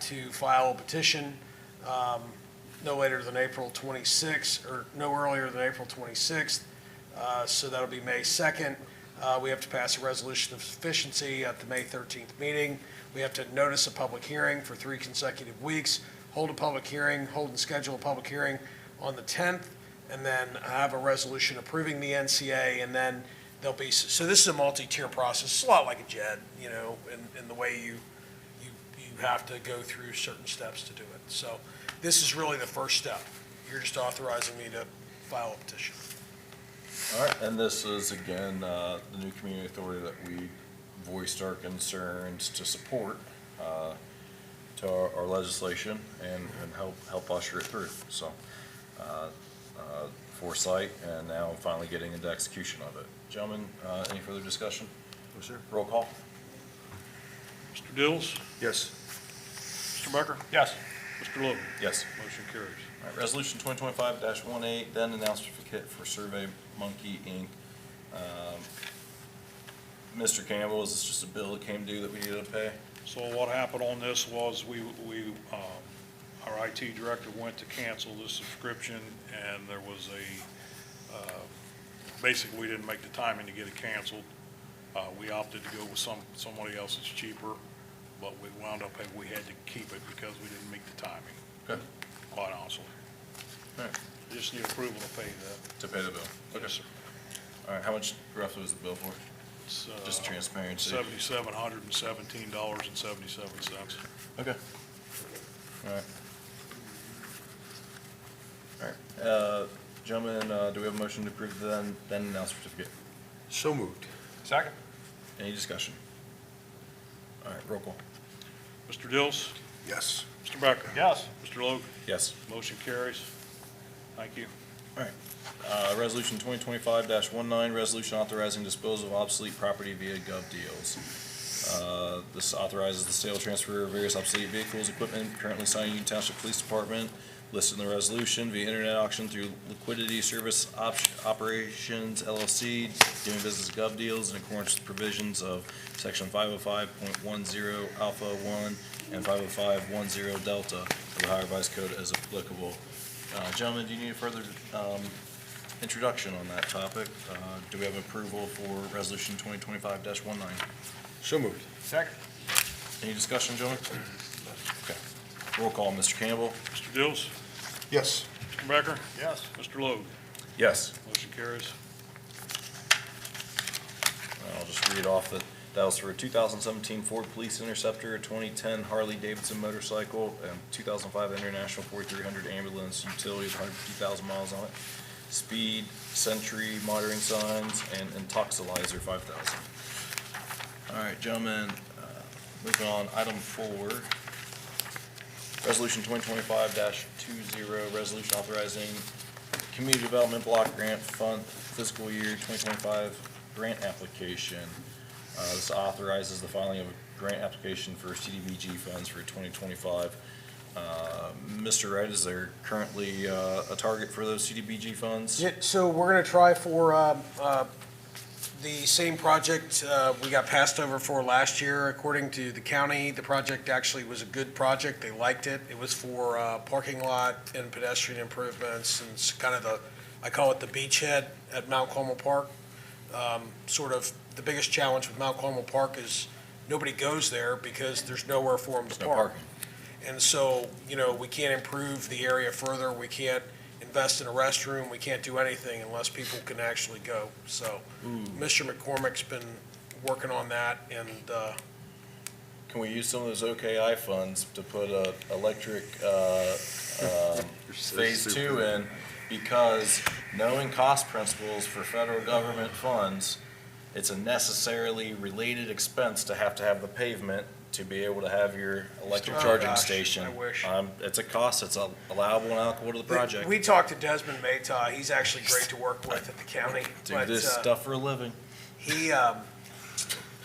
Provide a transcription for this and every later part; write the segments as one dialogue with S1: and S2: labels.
S1: to file a petition um, no later than April 26th, or no earlier than April 26th. Uh, So that'll be May 2nd. Uh, We have to pass a resolution of sufficiency at the May 13th meeting. We have to notice a public hearing for three consecutive weeks, hold a public hearing, hold and schedule a public hearing on the 10th, and then have a resolution approving the NCA, and then there'll be, so this is a multi-tier process, it's a lot like a JED, you know, in, in the way you, you, you have to go through certain steps to do it. So this is really the first step. You're just authorizing me to file a petition.
S2: All right, and this is again, uh, the new community authority that we voiced our concerns to support, uh, to our, our legislation and, and help, help usher it through. So, uh, uh, foresight and now finally getting into execution of it. Gentlemen, uh, any further discussion?
S3: No, sir.
S2: Roll call?
S4: Mr. Dills?
S3: Yes.
S4: Mr. Becker?
S2: Yes.
S4: Mr. Logan?
S2: Yes.
S4: Motion carries.
S2: All right, resolution twenty twenty-five 18 then an certificate for Survey Monkey Inc. Um, Mr. Campbell, is this just a bill that came due that we needed to pay?
S4: So what happened on this was we, we, um, our IT director went to cancel the subscription and there was a, uh, basically, we didn't make the timing to get it canceled. Uh, we opted to go with some, somebody else that's cheaper, but we wound up, we had to keep it because we didn't meet the timing.
S2: Okay.
S4: Quite honestly.
S2: Alright.
S4: Just need approval to pay that.
S2: To pay the bill.
S4: Yes, sir.
S2: All right, how much roughly was the bill for?
S4: It's, uh,
S2: Just transparency.
S4: Seventy-seven hundred and seventeen dollars and seventy-seven cents.
S2: Okay. All right. All right, uh, gentlemen, uh, do we have a motion to approve the then, then and now certificate?
S3: So moved.
S2: Second. Any discussion? All right, roll call.
S4: Mr. Dills?
S3: Yes.
S4: Mr. Becker? Yes. Mr. Logan?
S2: Yes.
S4: Motion carries. Thank you.
S2: Uh, Resolution 2025-19, resolution authorizing disposal of obsolete property via gov deals. Uh, This authorizes the sale transfer of various obsolete vehicles, equipment currently signed Union Township Police Department, listed in the resolution via internet auction through Liquidity Service Op- Operations LLC, doing business as gov deals in accordance with provisions of Section 505.10 Alpha 1 and 505.10 Delta of the Ohio Revised Code as applicable. Uh, Gentlemen, do you need a further um, introduction on that topic. Uh, Do we have approval for Resolution 2025-19?
S3: So moved.
S2: Second. Any discussion, gentlemen? Okay. Roll call, Mr. Campbell?
S4: Mr. Dills?
S3: Yes.
S4: Mr. Becker?
S3: Yes.
S4: Mr. Logan?
S2: Yes.
S4: Motion carries.
S2: Uh, I'll just read off that, that was for a 2017 Ford Police Interceptor, a 2010 Harley Davidson motorcycle, and 2005 International 4300 ambulance, utility of 150,000 miles on it, speed, sentry, monitoring signs, and intoxilizer 5,000. All right, gentlemen, uh, moving on, item four. Resolution 2025-20, resolution authorizing community development block grant fund fiscal year 2025 grant application. Uh, This authorizes the filing of a grant application for CDBG funds for 2025. Uh, Mr. Wright, is there currently uh, a target for those CDBG funds?
S1: Yeah, so we're gonna try for, um, uh, the same project, uh, we got passed over for last year. According to the county, the project actually was a good project. They liked it. It was for, uh, parking lot and pedestrian improvements and it's kind of the, I call it the beachhead at Mount Carmel Park. Um, sort of, the biggest challenge with Mount Carmel Park is nobody goes there because there's nowhere for them to
S2: No
S1: park.
S2: parking.
S1: And so, you know, we can't improve the area further, we can't invest in a restroom, we can't do anything unless people can actually go. So Mr. McCormick's been working on that and, uh,
S2: Can we use some of those OKI funds to put a electric uh, um, phase two in? Because knowing cost principles for federal government funds, it's a necessarily related expense to have to have the pavement to be able to have your electric
S1: Oh,
S2: charging
S1: gosh,
S2: station.
S1: I wish.
S2: Um, It's a cost, it's al- allowable and allocable to the project.
S1: we talked to Desmond Maytaw, he's actually great to work with at the county.
S2: Do
S1: but,
S2: this
S1: uh,
S2: stuff for a living.
S1: He, um,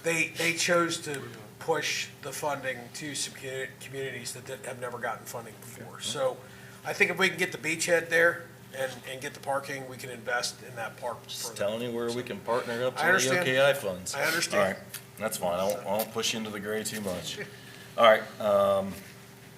S1: they, they chose to push the funding to some commu- communities that did- have never gotten funding before. So I think if we can get the beachhead there and, and get the parking, we can invest in that park
S2: Just
S1: further.
S2: telling you where we can partner up
S1: I
S2: to the
S1: understand.
S2: OKI funds.
S1: I understand.
S2: All right, that's fine, I won't, I won't push you into the gray too much. All right, um,